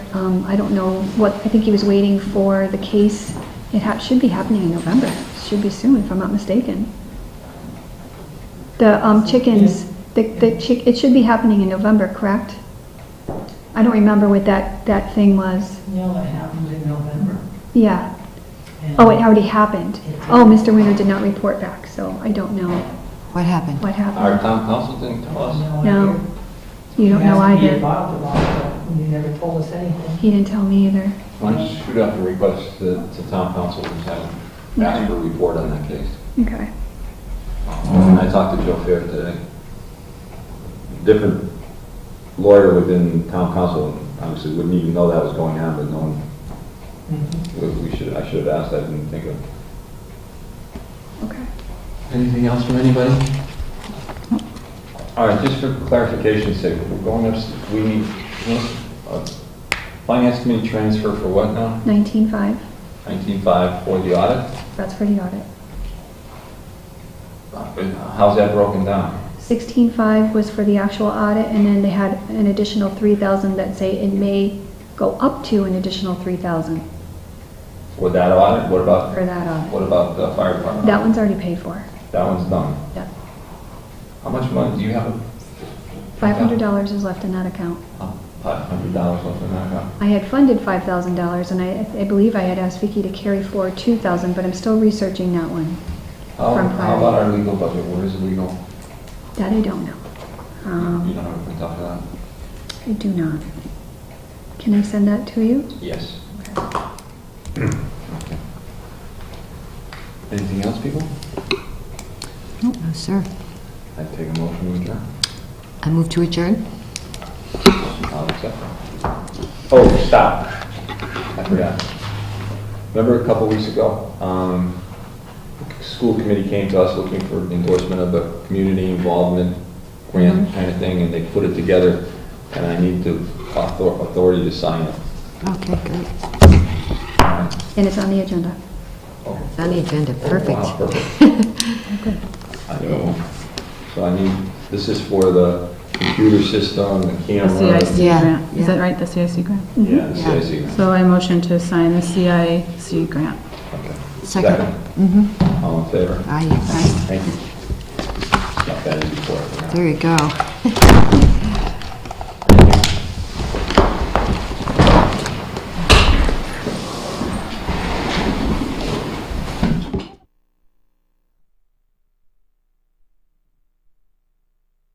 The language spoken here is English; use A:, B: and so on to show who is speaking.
A: um, I don't know what, I think he was waiting for the case. It ha- should be happening in November, should be soon, if I'm not mistaken. The um, chickens, the, the chick, it should be happening in November, correct? I don't remember what that, that thing was.
B: No, it happened in November.
A: Yeah.
B: and-
A: Oh, it already happened. Oh, Mr. Winter did not report back, so I don't know
C: What happened?
A: what
D: Our
A: happened.
D: town council didn't tell us.
A: No,
B: idea.
A: you don't know
B: He asked to be
A: either.
B: involved at all, but he never told us anything.
A: He didn't tell me either.
D: Why don't you shoot out the request to, to town council and have them ask for a report on that case?
A: Okay.
D: And I talked to Joe Fair today. Different lawyer within town council, obviously wouldn't even know that was going on, but no one,
B: Mhm.
D: we- we should, I should have asked, I didn't think of.
A: Okay.
D: Anything else from anybody? All right, just for clarification's sake, we're going up, we need, uh, finance committee transfer for what now?
A: Nineteen-five,
D: Nineteen-five oh for the audit?
A: that's for the audit.
D: How's that broken down?
A: Sixteen-five was for the actual audit, and then they had an additional three thousand that say it may go up to an additional three thousand
D: For that audit, what about,
A: for that audit.
D: what about the fire department?
A: That one's already paid for.
D: That one's done.
A: Yeah.
D: How much money do you have?
A: Five hundred dollars is left in that account.
D: Five hundred dollars left in that account.
A: I had funded five thousand dollars, and I, I believe I had asked Vicky to carry forward two thousand, but I'm still researching that one.
D: How,
A: From
D: how
A: prior.
D: about our legal budget? Where is legal?
A: That I don't know.
D: You
A: Um,
D: don't have to talk to that?
A: I do not. Can I send that to you?
D: Yes. Okay. Anything else, people?
C: No, Oh, sir.
D: I take a motion to adjourn.
C: I move to adjourn?
D: I'll accept Oh, stop. I forgot. Remember a couple weeks ago, um, the school committee came to us looking for endorsement of a community involvement grant kind of thing, and they put it together, and I need the author- authority to sign it.
C: Okay, great.
A: And it's on the agenda.
D: Oh,
C: It's on the agenda,
D: wow,
C: perfect.
D: I know. So I need, this is for the computer system, the
E: The
D: camera.
E: CIC
C: Yeah,
E: grant, is that
C: yeah.
E: right, the CIC grant?
D: Yeah, the CIC.
E: So I motion to sign the CIC grant.
D: Okay.
C: Second. Mm-hmm.
D: All in favor?
C: Aye, aye.
D: Thank you. Not bad as before.
C: There you go.